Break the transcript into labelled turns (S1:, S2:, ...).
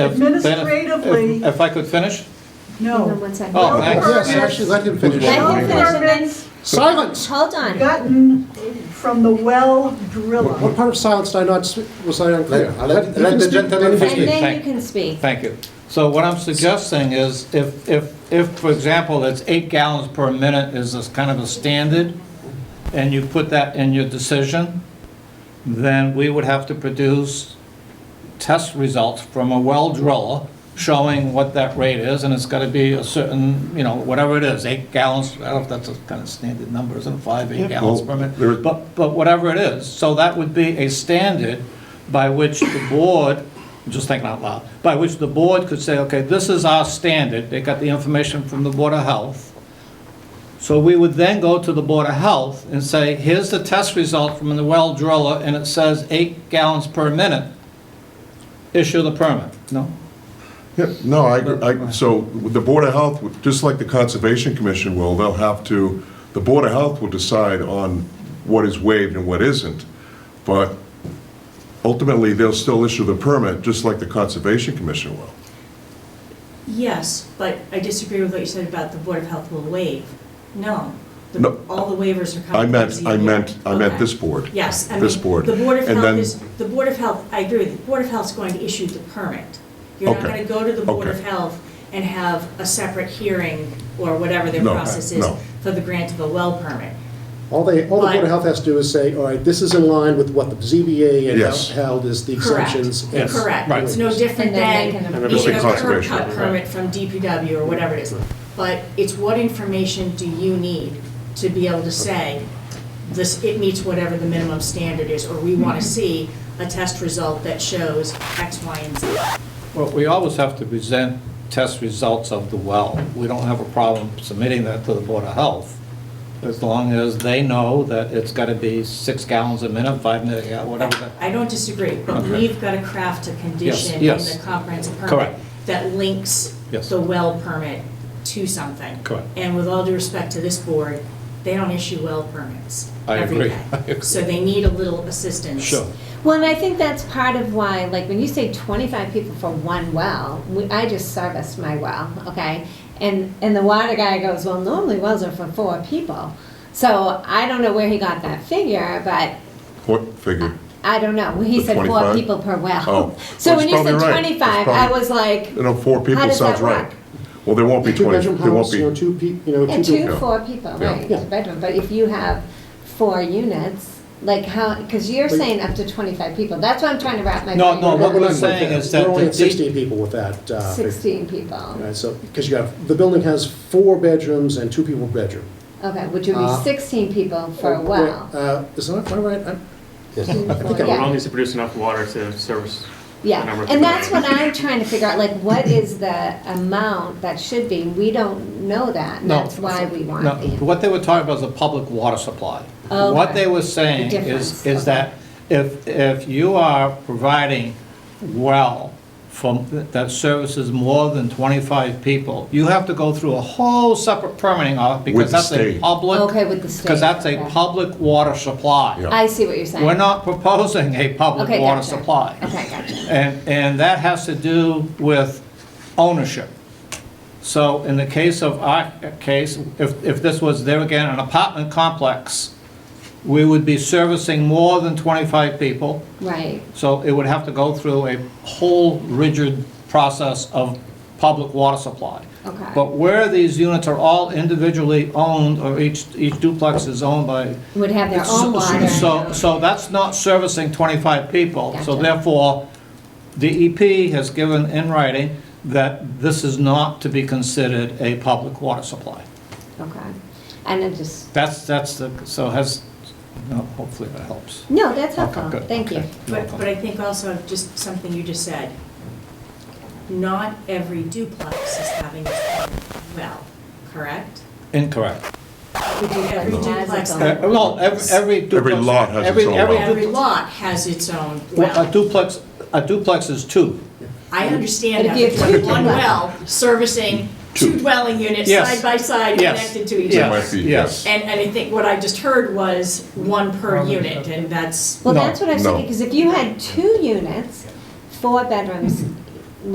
S1: If- then if-
S2: Administratively-
S1: If I could finish?
S2: No.
S3: Hang on one second.
S1: Oh,
S2: thanks.
S4: Yes, actually, let him finish.
S3: Let him finish and then-
S2: Permits
S4: Silence!
S3: Hold on.
S2: gotten from the well
S4: What
S2: driller.
S4: part of silence did I not, sp- was I unclear?
S5: Let- let- let the gentleman
S4: finish.
S3: And then you
S1: Thank-
S3: can speak.
S1: Thank you. So what I'm suggesting is if, if, if, for example, it's eight gallons per minute is this kind of a standard, and you put that in your decision, then we would have to produce test results from a well driller showing what that rate is, and it's got to be a certain, you know, whatever it is, eight gallons, I don't know if that's a kind of standard number, isn't it, five, eight gallons per
S5: Well,
S1: minute?
S5: there-
S1: But, but whatever it is, so that would be a standard by which the board, I'm just thinking out loud, by which the board could say, okay, this is our standard, they got the information from the Board of Health, so we would then go to the Board of Health and say, here's the test result from the well driller, and it says eight gallons per minute. Issue the permit. No?
S6: Yeah, no, I, agree- I, so the Board of Health, would- just like the Conservation Commission will, they'll have to, the Board of Health will decide on what is waived and what isn't. But ultimately, they'll still issue the permit, just like the Conservation Commission will.
S7: Yes, but I disagree with what you said about the Board of Health will waive. No. The-
S6: No.
S7: All the waivers are
S6: I
S7: coming. from
S6: meant, I
S7: ZBA.
S6: meant, I meant
S7: Okay.
S6: this board.
S7: Yes, I mean,
S6: This board.
S7: the Board of
S6: And
S7: Health
S6: then-
S7: is, the Board of Health, I agree with you, the Board of Health's going to issue the permit. You're not
S6: Okay.
S7: going to go to the Board
S6: Okay.
S7: of Health and have a separate hearing or whatever their
S6: No,
S7: process is
S6: no.
S7: for the grant of a well permit.
S4: All they, all the Board
S7: Right.
S4: of Health has to do is say, all right, this is in line with what the ZBA
S6: Yes.
S4: and held is the
S7: Correct.
S4: exemptions. and-
S1: Yes.
S7: Correct.
S1: Right.
S7: It's no different
S3: And then they
S7: than
S3: can-
S6: And then
S7: even a
S6: it's
S7: curb
S6: conservation,
S7: cut
S6: right.
S7: permit from DPW or whatever it is. But it's what information do you need to be able to say, this, it meets whatever the minimum standard is, or we
S4: Mm-hmm.
S7: want to see a test result that shows X, Y, and Z.
S1: Well, we always have to present test results of the well. We don't have a problem submitting that to the Board of Health, as long as they know that it's got to be six gallons a minute, five minute, yeah, whatever. that-
S7: I don't disagree, but
S1: Okay.
S7: we've got to craft a condition in
S1: yes.
S7: the comprehensive permit.
S1: Correct.
S7: That links
S1: Yes.
S7: the well permit to something.
S1: Correct.
S7: And with all due respect to this board, they don't issue well permits
S1: I
S7: every
S1: agree.
S7: day.
S1: I agree.
S7: So they need a little assistance.
S1: Sure.
S3: Well, and I think that's part of why, like, when you say 25 people for one well, we- I just serviced my well, okay? And, and the water guy goes, well, normally wells are for four people. So I don't know where he got that figure, but
S6: What figure?
S3: I don't know. He
S6: The
S3: said four
S6: 25?
S3: people per well.
S6: Oh.
S3: So
S6: Well,
S3: when
S6: he's
S3: you said
S6: probably right. He's
S3: 25, I
S6: probably-
S3: was like,
S6: You know, four
S3: How
S6: people
S3: does
S6: sounds
S3: that
S6: right.
S3: work?
S6: Well, there won't be
S4: Two
S6: 20,
S4: bedroom
S6: there won't
S4: house, you know,
S6: be,
S4: two people, you know,
S3: And
S4: two.
S3: two,
S6: people.
S3: four people,
S6: Yeah.
S3: right,
S4: Yeah.
S3: bedroom, but if you have four units, like how, because you're
S4: But-
S3: saying up to twenty-five people, that's what I'm trying to wrap my
S1: No,
S3: brain
S1: no, what
S3: around.
S1: we're
S4: not
S1: saying
S4: doing
S1: is that
S4: We're only
S1: the
S4: at
S1: D-
S4: sixteen people with that. uh,
S3: Sixteen people,
S4: Right, so, because you have, the building has four bedrooms and two people bedroom.
S3: okay, which would
S4: Uh,
S3: be sixteen people for a
S4: Uh,
S3: well.
S4: Uh, is that, am I right? I'm-
S3: Four-
S8: The well
S3: Yeah,
S8: needs to produce enough water to service. the number
S3: yeah,
S8: of
S3: and
S8: people.
S3: that's what I'm trying to figure out, like, what is the amount that should be, we don't know that, and
S1: No.
S3: that's why we want
S1: No,
S3: the.
S1: what they were talking about is a public water supply.
S3: Okay.
S1: What they were saying
S3: The
S1: is,
S3: difference,
S1: is that if, if you are providing well from, that services more than 25 people, you have to go through a whole separate permitting off because
S6: With the
S1: that's a
S6: state.
S1: public.
S3: Okay, with the state,
S1: Because that's a
S3: okay.
S1: public water supply.
S6: Yeah.
S3: I see what you're saying.
S1: We're not proposing a public
S3: Okay,
S1: water
S3: gotcha.
S1: supply.
S3: Okay, gotcha.
S1: And, and that has to do with ownership. So in the case of our case, if, if this was there again, an apartment complex, we would be servicing more than 25 people,
S3: Right,
S1: so it would have to go through a whole rigid process of public water supply.
S3: Okay.
S1: But where these units are all individually owned, or each, each duplex is owned by
S3: would have their own water.
S1: so, so that's not servicing 25 people, so
S3: Gotcha.
S1: therefore, the EP has given in writing that this is not to be considered a public water supply.
S3: Okay, and it just.
S1: That's, that's the, so has, no, hopefully that helps.
S3: No, that's
S1: Okay,
S3: helpful,
S1: good,
S3: thank you.
S1: okay.
S7: But, but I think also, just something you just said, not every duplex is having its own well, correct?
S1: Incorrect.
S7: Every duplex.
S3: Uh,
S1: Uh, Well, every, every duplex.
S6: lot has its
S1: every-
S6: own
S1: every
S6: lot.
S7: Every
S1: duplex-
S7: lot has its own
S1: well, A
S7: well.
S1: duplex, a duplex is two.
S7: I understand
S3: But
S7: that,
S3: if you
S7: but
S3: have
S7: you
S3: two
S7: have one
S3: well-
S7: well servicing two
S6: Two.
S7: dwelling units
S1: Yes.
S7: side by side,
S1: Yes.
S7: connected to each
S1: Yes.
S7: other.
S6: Might be, yes.
S7: And, and I think what I just heard was one per unit, and that's,
S3: Well,
S1: No,
S3: that's what I was
S6: no.
S3: thinking, because if you had two units, four bedrooms,